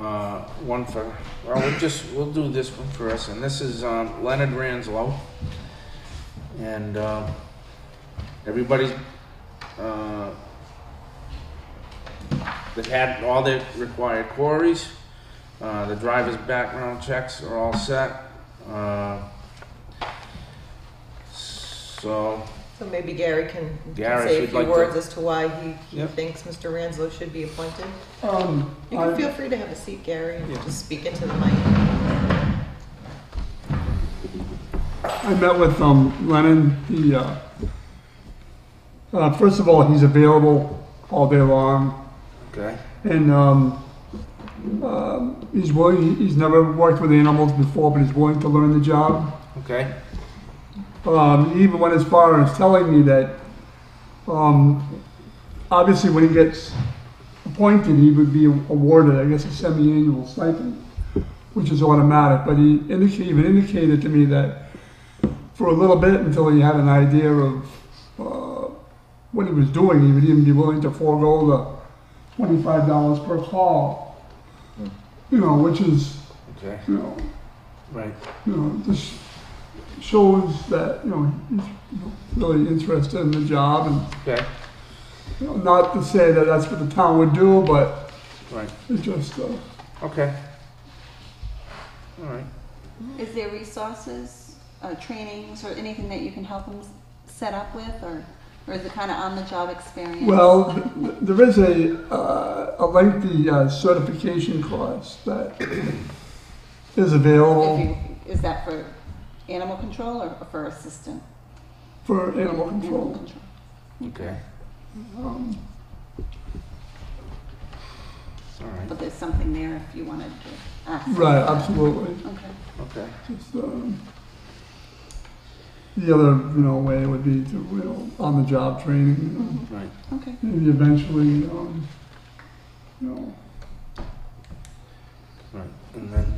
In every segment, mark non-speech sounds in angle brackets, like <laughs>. Uh, one for, well, we'll just, we'll do this one for us, and this is um, Leonard Ranslow. And uh, everybody uh, that had all their required queries, uh, the driver's background checks are all set. uh, So, So maybe Gary can can Gary, if say a you'd few like to- words as to why he, he Yep. thinks Mr. Ranslow should be appointed. Um, You can feel I, free to have a seat, Gary, and Yeah. just speak into the mic. I met with, um, Lennon, he, uh, uh, first of all, he's available all day long, okay, and, um, um, he's willing, he's never worked with animals before, but he's willing to learn the job. okay, Um, he even went as far as telling me that, um, obviously when he gets appointed, he would be awarded, I guess, a semi-annual stipend, which is automatic. But he indica- even indicated to me that for a little bit, until he had an idea of uh, what he was doing, he would even be willing to forego the twenty-five dollars per call. You know, which is, okay, you know, right, you know, this shows that, you know, he's really interested in the job and, okay, you know, not to say that that's what the town would do, but right, it's just, uh, okay. All right. Is there resources, uh, trainings, or anything that you can help them s- set up with, or, or is it kind of on-the-job experience? well, th- there is a, uh, a lengthy uh, certification course that is If available you, is that for animal control or or for assistant? for animal Animal control. control. Okay. Um, All right. But there's something there if you wanted to ask. Right, um, absolutely. Okay. Okay. Just, um, the other, you know, way would be to, you know, on-the-job training, you know. Right. Okay. maybe eventually, um, you know, Right. And then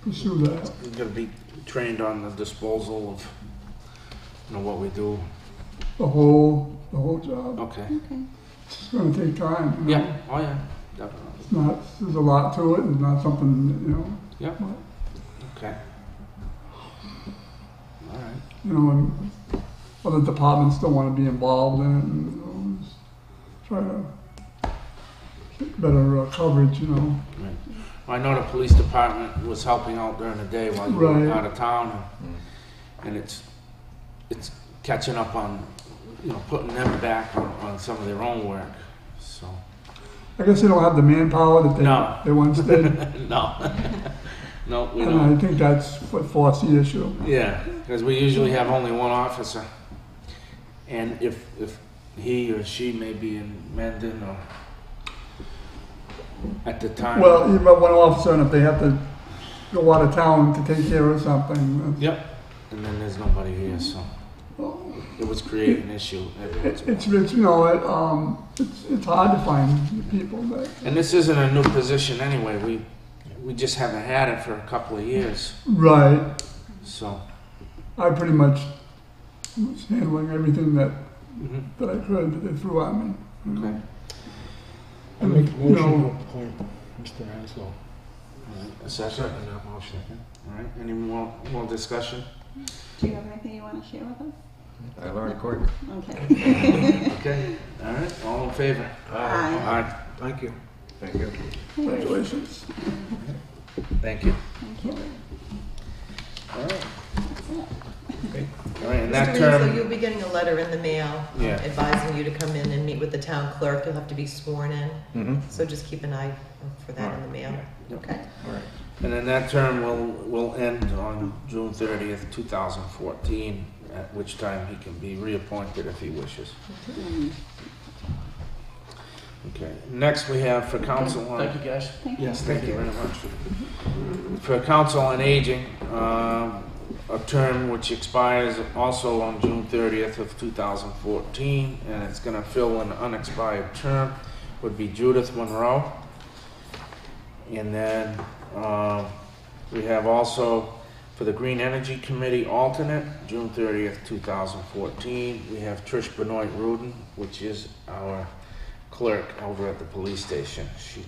pursue that. you're gonna be trained on the disposal of, you know, what we do. The whole, the whole job. Okay. Okay. It's going to take time. You know? Yeah. Oh yeah. Definitely. It's not, there's a lot to it and not something, you know, Okay. All right. you know, and other departments don't want to be involved in it and you know, just try to get better uh, coverage, you know. Right. I know the police department was helping out during the day while you were Right. out of town, and it's it's catching up on you know putting them back on, on some of their own work. So I guess they don't have the manpower that they, No. they once <laughs> did. and no, no, we don't. I think that's what forced the issue. Yeah, because we usually have only one officer. And if, if he or she may be in Mendon or at the time. Well, you've got one officer, and if they have to go out of town to take care of something, that's Yep, and then there's nobody here, so it was creating an issue. every once It- in a It's, it's, you know, it, um, it's, it's hard to find people that, while. And this isn't a new position anyway, we, we just haven't had it for a couple of years, right, so. I pretty much was handling everything that, mhm, that I could that they threw at me. you know. Okay. I make a You motion to know, appoint Mr. Haslow. All right, a second. All right, any more, more discussion? Do you have anything you want to share with us? I learned quick. <laughs> Okay. Okay, all right, all in favor? All Aye. right, Thank you. Thank you. Congratulations. thank you. Thank you. All right. That's it. All right, and Mr. that Ranslow, term, you'll be getting a letter in the mail um, Yeah. advising you to come in and meet with the town clerk. You'll have to be sworn in. Mm-hmm. So just keep an eye for that in the mail. yeah. Okay? All right. and then that term will, will end on June thirtieth, two thousand fourteen, at which time he can be reappointed if he wishes. Mm, Okay, next we have for council on. Thank you, guys. Thank you. Yes, Thank you very much. For Council on Aging, um, a term which expires also on June 30th of 2014, and it's going to fill an unexpired term, would be Judith Monroe. And then um, we have also for the Green Energy Committee alternate, June 30th, 2014, we have Trish Benoit Rudin, which is our clerk over at the police station. She